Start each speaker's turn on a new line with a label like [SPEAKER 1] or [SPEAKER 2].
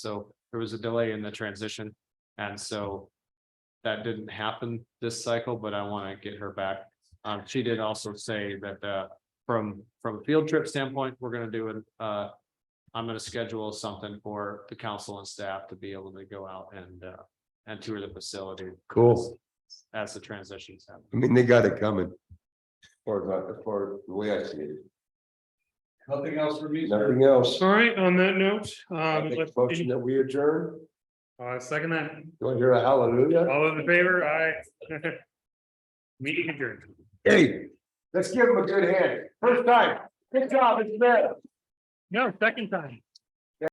[SPEAKER 1] So there was a delay in the transition. And so that didn't happen this cycle, but I want to get her back. Um, she did also say that, uh, from, from a field trip standpoint, we're going to do an uh, I'm going to schedule something for the council and staff to be able to go out and, uh, and tour the facility
[SPEAKER 2] Cool.
[SPEAKER 1] as the transitions happen.
[SPEAKER 2] I mean, they got it coming. For, the- for the way I see it.
[SPEAKER 1] Nothing else for me,
[SPEAKER 2] Nothing else.
[SPEAKER 3] All right, on that note,
[SPEAKER 2] I
[SPEAKER 3] um,
[SPEAKER 2] make
[SPEAKER 3] let's-
[SPEAKER 2] a Motion that we adjourn.
[SPEAKER 3] uh, second that,
[SPEAKER 2] Do I hear a hallelujah?
[SPEAKER 3] all those in favor, aye. Meeting adjourned.
[SPEAKER 2] Hey, let's give them a good hand. First time. Good job, it's there.
[SPEAKER 3] No, second time.